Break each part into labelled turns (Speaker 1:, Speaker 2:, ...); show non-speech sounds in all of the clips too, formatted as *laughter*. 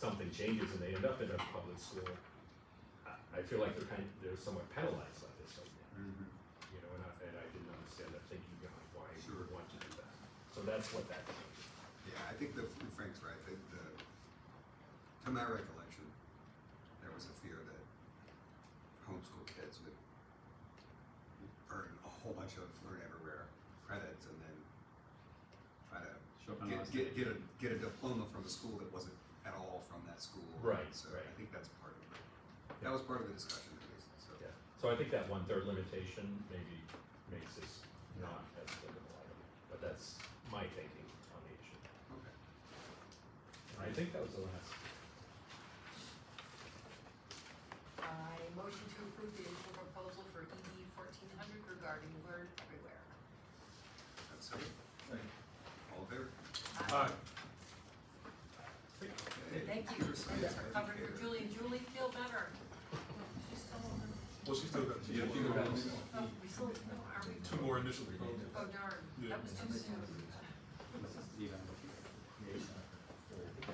Speaker 1: and changes and they end up in a public school, I, I feel like they're kind, they're somewhat penalized by this right now,
Speaker 2: Mm-hmm.
Speaker 1: you know, and I, and I didn't understand that thinking behind why you
Speaker 2: Sure.
Speaker 1: would want to do that. So that's what that change is.
Speaker 2: Yeah, I think the Frank's right. The, the, to my recollection, there was a fear that homeschool kids would burn a whole bunch of learn everywhere credits and then try to
Speaker 3: Show up on
Speaker 2: get,
Speaker 3: last
Speaker 2: get,
Speaker 3: night.
Speaker 2: get a get a diploma from a school that wasn't at all from that school.
Speaker 1: Right,
Speaker 2: So I
Speaker 1: right.
Speaker 2: think that's part of it. That was part of the discussion at least. So
Speaker 1: Yeah, so I think that one third limitation maybe makes this not as applicable, I don't know, but that's my thinking on the issue.
Speaker 2: okay.
Speaker 1: I think that was the last.
Speaker 4: I motion to approve the initial proposal for ED fourteen hundred regarding Learn Everywhere.
Speaker 2: That's it. All in favor?
Speaker 4: Aye.
Speaker 2: Okay.
Speaker 4: Thank you.
Speaker 2: Computer science
Speaker 4: Covered for
Speaker 2: educator.
Speaker 4: Julie, Julie, feel better. She's still,
Speaker 5: Well, she's still got two,
Speaker 3: Yeah,
Speaker 5: more-
Speaker 3: got
Speaker 4: oh, we still, no, are we?
Speaker 5: two more initial proposals.
Speaker 4: Oh darn,
Speaker 5: Yeah.
Speaker 4: that was too soon.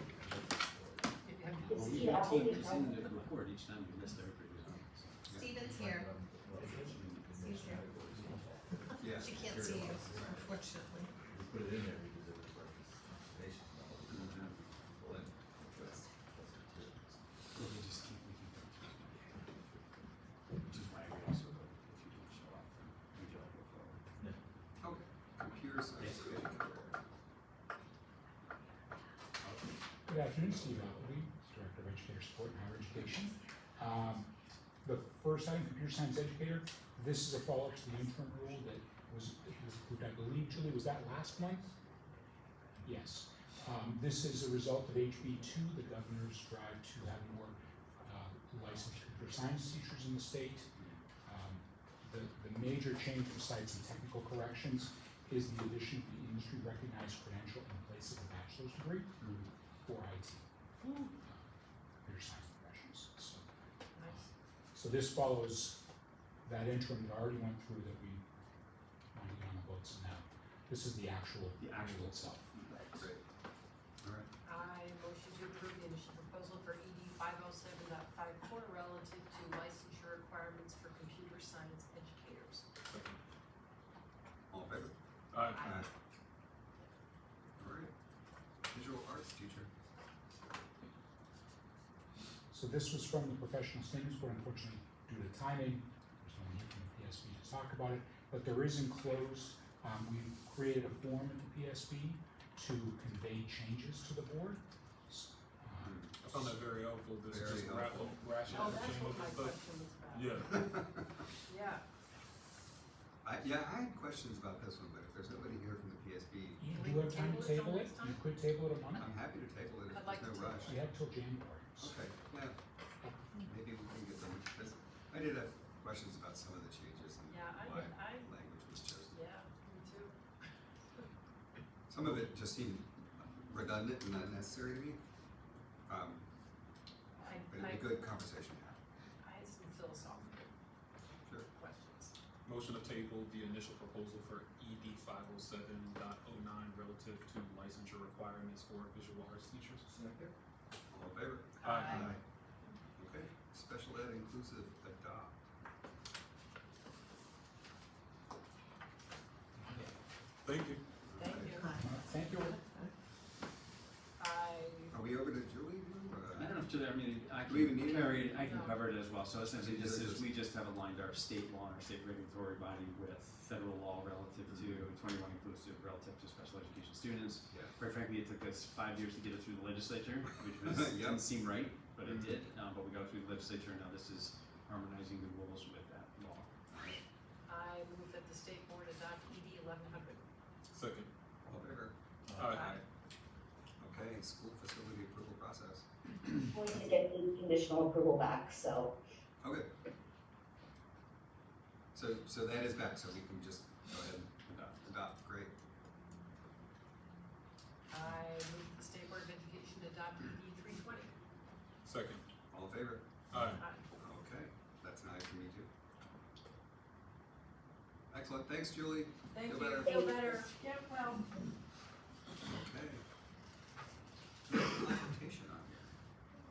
Speaker 4: Maybe I can-
Speaker 3: Well, we get ten percent of the report each time we miss the report.
Speaker 6: Steven's here. Steve's here.
Speaker 2: Yeah.
Speaker 6: She can't see you, unfortunately.
Speaker 7: Put it in there because it was like this nation.
Speaker 3: Well, we just keep, we can. Which is why we also, vote if you don't show up, then we don't go forward.
Speaker 2: Okay. Computer science educator.
Speaker 8: Good afternoon, Steve Appleby, Director of Educator Support and Higher Education. Um, The first item, computer science educator, this is a follow-up to the interim rule that was, that was approved, I believe, Julie, was that last month? Yes. Um, This is a result of HB two, the governor's drive to have more uh, licensed computer science teachers in the state. Um, The, the major change besides the technical corrections is the addition of the industry-recognized credential in place of a bachelor's degree for IT. Computer science professionals, so. So this follows that interim that I already went through that we wanted to get on the books and now. This is the actual.
Speaker 3: The actual
Speaker 8: rule itself.
Speaker 2: Great. All right.
Speaker 4: I motion to approve the initial proposal for ED five oh seven dot five four relative to licensure requirements for computer science educators.
Speaker 2: All in favor?
Speaker 5: Aye.
Speaker 4: Aye.
Speaker 2: All right. Visual arts teacher. *laughs*
Speaker 8: So this was from the professional standards board, unfortunately, due to timing, there's no one here from the PSB to talk about it, but there is enclosed, um, we've created a form at the PSB to convey changes to the board. S-
Speaker 3: Hmm.
Speaker 8: um,
Speaker 5: I found that very helpful, this
Speaker 2: Very
Speaker 5: is just
Speaker 2: helpful.
Speaker 5: raffle, rational
Speaker 4: Oh, that's what
Speaker 5: changes
Speaker 4: my
Speaker 5: and stuff.
Speaker 4: question was about.
Speaker 5: Yeah,
Speaker 4: Yeah,
Speaker 2: I, yeah, I had questions about this one, but if there's nobody here from the PSB,
Speaker 8: You
Speaker 4: Can we
Speaker 8: do have time
Speaker 4: table
Speaker 8: to
Speaker 4: it till
Speaker 8: table it,
Speaker 4: next
Speaker 8: you
Speaker 4: time?
Speaker 8: could table it a month,
Speaker 2: I'm happy to table it if
Speaker 4: I'd like
Speaker 2: there's
Speaker 4: to
Speaker 2: no rush.
Speaker 8: we have till January. so-
Speaker 2: Okay, yeah. Maybe we can get them, because I did have questions about some of the changes and
Speaker 4: yeah, I,
Speaker 2: why
Speaker 4: I,
Speaker 2: language was chosen.
Speaker 4: yeah, me too.
Speaker 2: Some of it just seemed redundant and unnecessary to me, um,
Speaker 4: I,
Speaker 2: but
Speaker 4: I,
Speaker 2: it'd be good conversation to have.
Speaker 4: I had some philosophical
Speaker 2: Sure.
Speaker 4: questions.
Speaker 5: motion to table the initial proposal for ED five oh seven dot oh nine relative to licensure requirements for visual arts teachers.
Speaker 2: All in favor?
Speaker 5: Aye.
Speaker 2: Okay, special ed inclusive adopt.
Speaker 5: Thank you.
Speaker 4: Thank you.
Speaker 8: Uh, Thank you,
Speaker 4: I,
Speaker 2: Are we over to Julie now, or? uh,
Speaker 3: I don't know if, to- I mean, I
Speaker 2: Do we even need
Speaker 3: can
Speaker 2: it?
Speaker 3: carry it, I can
Speaker 4: No.
Speaker 3: cover it as well, so essentially this
Speaker 2: These are
Speaker 3: is,
Speaker 2: just-
Speaker 3: we just have aligned our state law and our state regulatory body with federal law relative to twenty-one inclusive, relative to special education students.
Speaker 2: Mm-hmm. Yeah.
Speaker 3: Quite frankly, it took us five years to get it through the legislature,
Speaker 2: *laughs*
Speaker 3: which was,
Speaker 2: Yep.
Speaker 3: didn't seem right, but it
Speaker 2: Mhm.
Speaker 3: did, um, but we got through the legislature, and now this is harmonizing the rules with that law.
Speaker 4: I move that the state board adopt ED eleven hundred.
Speaker 5: Second.
Speaker 2: All in favor?
Speaker 5: Aye.
Speaker 2: Okay, school facility approval process.
Speaker 9: We need to get the conditional approval back, so
Speaker 2: Okay. So, so that is back, so we can just go ahead and
Speaker 3: Adopt.
Speaker 2: adopt, great.
Speaker 4: I move that the state board of education adopt ED three twenty.
Speaker 5: Second.
Speaker 2: All in favor?
Speaker 5: Aye.
Speaker 2: Okay, that's nice for me too. Excellent, thanks Julie.
Speaker 4: Thank
Speaker 2: Feel
Speaker 4: you,
Speaker 2: better.
Speaker 4: feel better. Get well.